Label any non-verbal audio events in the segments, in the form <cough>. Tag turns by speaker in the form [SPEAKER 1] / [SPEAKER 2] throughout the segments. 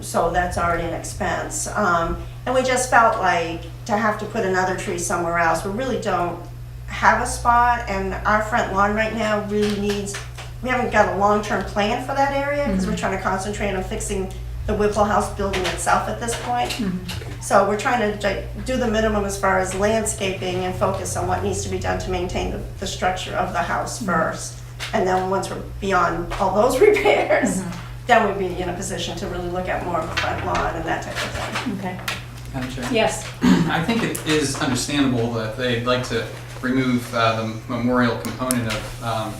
[SPEAKER 1] so that's already an expense. Um, and we just felt like to have to put another tree somewhere else, we really don't have a spot, and our front lawn right now really needs, we haven't got a long-term plan for that area, because we're trying to concentrate on fixing the Whipple House building itself at this point. So we're trying to like, do the minimum as far as landscaping and focus on what needs to be done to maintain the, the structure of the house first. And then once we're beyond all those <laughs> repairs, then we'd be in a position to really look at more of a front lawn and that type of thing.
[SPEAKER 2] Okay,
[SPEAKER 3] Madam Chair?
[SPEAKER 2] yes.
[SPEAKER 3] <clears throat> I think it is understandable that they'd like to remove uh, the memorial component of um,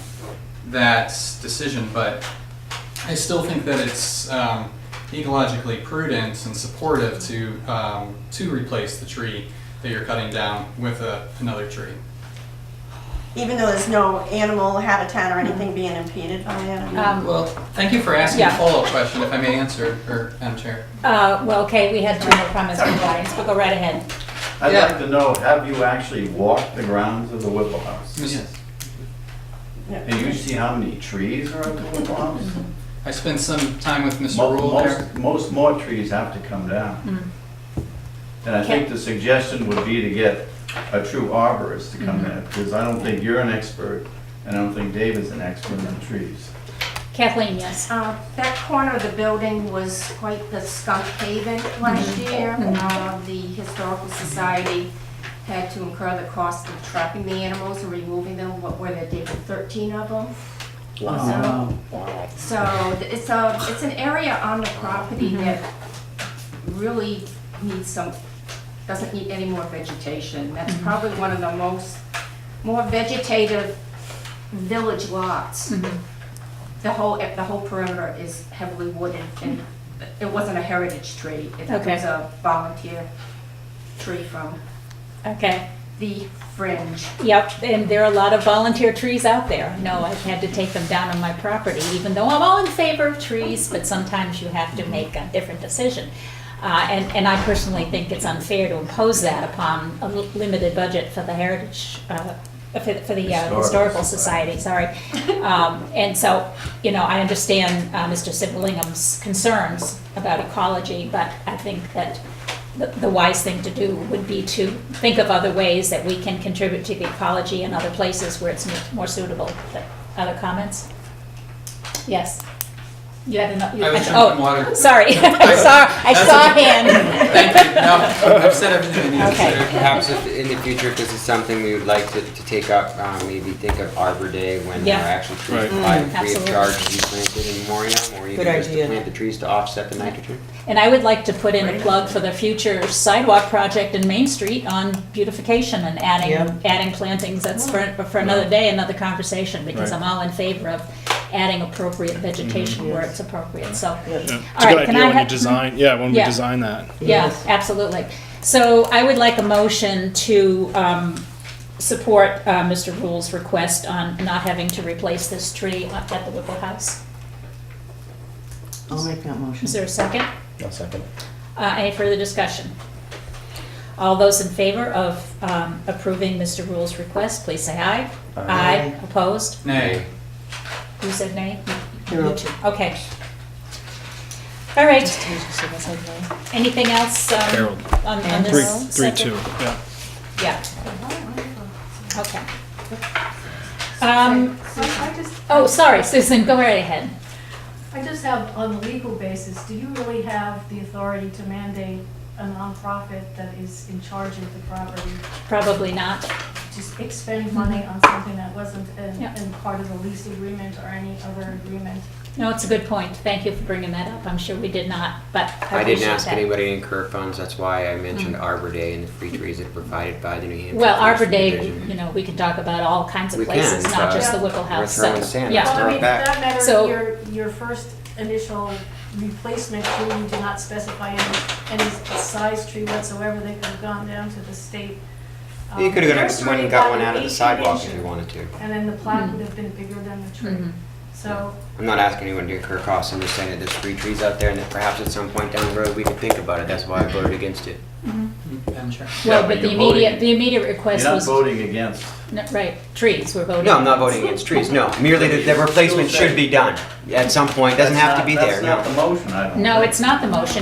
[SPEAKER 3] that decision, but I still think that it's um, ecologically prudent and supportive to, um, to replace the tree that you're cutting down with a- another tree.
[SPEAKER 1] Even though there's no animal habitat or anything being impeded by it. I mean,
[SPEAKER 2] Um,
[SPEAKER 3] Well, thank you for asking a
[SPEAKER 2] Yeah.
[SPEAKER 3] follow-up question, if I may answer, or, Madam Chair.
[SPEAKER 2] Uh, well, okay, we had two more comments from the audience, but go right ahead.
[SPEAKER 4] I'd
[SPEAKER 3] Yeah.
[SPEAKER 4] like to know, have you actually walked the grounds of the Whipple House?
[SPEAKER 3] Yes.
[SPEAKER 1] no.
[SPEAKER 4] And you see how many trees are at the Whipple House?
[SPEAKER 3] I spent some time with Mr.
[SPEAKER 4] Mo-
[SPEAKER 3] Rule there.
[SPEAKER 4] Most, most more trees have to come down.
[SPEAKER 2] Hmm.
[SPEAKER 4] And I think the suggestion would be to get a true arborist to come
[SPEAKER 2] Mm-hmm.
[SPEAKER 4] in, because I don't think you're an expert, and I don't think Dave is an expert on trees.
[SPEAKER 2] Kathleen, yes.
[SPEAKER 5] Uh, That corner of the building was quite the skunk haven last year. Uh, The Historical Society had to incur the cost of trapping the animals and removing them, what were there, David, 13 of them? Wow. So th- it's a, it's an area on the property that really needs some, doesn't need any more vegetation. That's probably one of the most, more vegetative village lots the whole, eh, the whole perimeter is heavily wooded, and it wasn't a heritage tree. It
[SPEAKER 2] Okay.
[SPEAKER 5] was a volunteer tree from
[SPEAKER 2] Okay,
[SPEAKER 5] the fringe.
[SPEAKER 2] yep, and there are a lot of volunteer trees out there. No, I've had to take them down on my property, even though I'm all in favor of trees, but sometimes you have to make a different decision. Uh, and, and I personally think it's unfair to impose that upon a li- limited budget for the heritage, uh, for, for the uh,
[SPEAKER 4] Historical
[SPEAKER 2] Historical
[SPEAKER 4] Society.
[SPEAKER 2] Society, sorry. Um, And so, you know, I understand uh, Mr. Siblingham's concerns about ecology, but I think that the- the wise thing to do would be to think of other ways that we can contribute to the ecology in other places where it's mu- more suitable. But Other comments? Yes. You had enough? you-
[SPEAKER 3] I was
[SPEAKER 2] <laughs> oh,
[SPEAKER 3] drinking water.
[SPEAKER 2] Sorry, <laughs> I saw, I
[SPEAKER 3] That's
[SPEAKER 2] saw a
[SPEAKER 3] okay.
[SPEAKER 2] hand.
[SPEAKER 3] Thank you. No, I've said everything I need to
[SPEAKER 2] Okay.
[SPEAKER 3] say.
[SPEAKER 6] Perhaps if, in the future, if this is something we would like to, to take up, um, maybe think of Arbor Day when there
[SPEAKER 2] Yeah. Mm,
[SPEAKER 6] are actually trees planted, free of
[SPEAKER 2] Absolutely.
[SPEAKER 6] charge to be planted in Moriam, or even
[SPEAKER 7] Good
[SPEAKER 6] just to
[SPEAKER 7] idea.
[SPEAKER 6] plant the trees to offset the nitrogen.
[SPEAKER 2] And I would like to put in a plug for the future sidewalk project in Main Street on beautification and
[SPEAKER 7] Yeah.
[SPEAKER 2] adding, adding plantings. That's for, for another day, another conversation, because
[SPEAKER 4] Right.
[SPEAKER 2] I'm all in favor of adding appropriate
[SPEAKER 3] Mm-hmm.
[SPEAKER 2] vegetation where it's appropriate, so.
[SPEAKER 7] Yes.
[SPEAKER 8] It's a
[SPEAKER 2] All
[SPEAKER 8] good
[SPEAKER 2] right, can
[SPEAKER 8] idea
[SPEAKER 2] I
[SPEAKER 8] when you
[SPEAKER 2] have-
[SPEAKER 8] design, yeah, when we
[SPEAKER 2] Yeah.
[SPEAKER 8] design that.
[SPEAKER 2] Yeah,
[SPEAKER 7] Yes.
[SPEAKER 2] absolutely. So I would like a motion to um, support uh, Mr. Rule's request on not having to replace this tree at the Whipple House.
[SPEAKER 7] I'll make that motion.
[SPEAKER 2] Is there a second?
[SPEAKER 9] I'll second.
[SPEAKER 2] Uh, Any further discussion? All those in favor of um, approving Mr. Rule's request, please say aye. Aye. Opposed?
[SPEAKER 3] Nay.
[SPEAKER 2] You said nay?
[SPEAKER 7] You're
[SPEAKER 2] You
[SPEAKER 7] up.
[SPEAKER 2] too. Okay. All right. Anything else um,
[SPEAKER 8] Harold.
[SPEAKER 2] on on
[SPEAKER 8] Three,
[SPEAKER 2] this?
[SPEAKER 8] three,
[SPEAKER 2] subject?
[SPEAKER 8] two, yeah.
[SPEAKER 2] Yeah. Okay. Um,
[SPEAKER 10] So I just,
[SPEAKER 2] oh, sorry, Susan, go right ahead.
[SPEAKER 10] I just have, on the legal basis, do you really have the authority to mandate a nonprofit that is in charge of the property
[SPEAKER 2] Probably not.
[SPEAKER 10] to expend money on something that wasn't in,
[SPEAKER 2] Mm-hmm. Yeah.
[SPEAKER 10] in part of the lease agreement or any other agreement?
[SPEAKER 2] No, it's a good point. Thank you for bringing that up. I'm sure we did not, but I
[SPEAKER 6] I didn't
[SPEAKER 2] appreciate
[SPEAKER 6] ask
[SPEAKER 2] that. Mm.
[SPEAKER 6] anybody to incur funds, that's why I mentioned Arbor Day and the free trees that are provided by the New Hampshire.
[SPEAKER 2] Well, Arbor
[SPEAKER 6] Forestry
[SPEAKER 2] Day,
[SPEAKER 6] Division.
[SPEAKER 2] you know, we can talk about all kinds of
[SPEAKER 6] We can,
[SPEAKER 2] places, not
[SPEAKER 6] but
[SPEAKER 2] just the Whipple
[SPEAKER 6] we're
[SPEAKER 2] House. so-
[SPEAKER 6] throwing sand.
[SPEAKER 2] Yeah,
[SPEAKER 10] Well, I
[SPEAKER 6] throw it
[SPEAKER 10] mean,
[SPEAKER 6] back.
[SPEAKER 10] for that matter,
[SPEAKER 2] So-
[SPEAKER 10] your, your first initial replacement tree, you do not specify any, any size tree whatsoever, they could have gone down to the state. um,
[SPEAKER 6] You could have
[SPEAKER 10] nursery
[SPEAKER 6] gone and got one out
[SPEAKER 10] about
[SPEAKER 6] of the
[SPEAKER 10] 18
[SPEAKER 6] sidewalk if
[SPEAKER 10] inches.
[SPEAKER 6] you wanted to.
[SPEAKER 10] And then the plaque would have been bigger than the tree.
[SPEAKER 2] Mhm.
[SPEAKER 10] So,
[SPEAKER 6] I'm not asking anyone to incur costs, I'm just saying that there's free trees out there and that perhaps at some point down the road, we could think about it, that's why I voted against it.
[SPEAKER 3] Madam Chair.
[SPEAKER 2] Well, but
[SPEAKER 4] Yeah, but
[SPEAKER 2] the
[SPEAKER 4] you're voting.
[SPEAKER 2] immediate, the immediate
[SPEAKER 4] You're
[SPEAKER 2] request
[SPEAKER 4] not
[SPEAKER 2] was,
[SPEAKER 4] voting against,
[SPEAKER 2] no, right, trees, we're voting.
[SPEAKER 6] No, I'm not voting against trees, no. Merely that the replacement should be done at some point, doesn't have to be there, no.
[SPEAKER 4] that's not the motion, I don't
[SPEAKER 2] No,
[SPEAKER 4] think.
[SPEAKER 2] it's not the motion.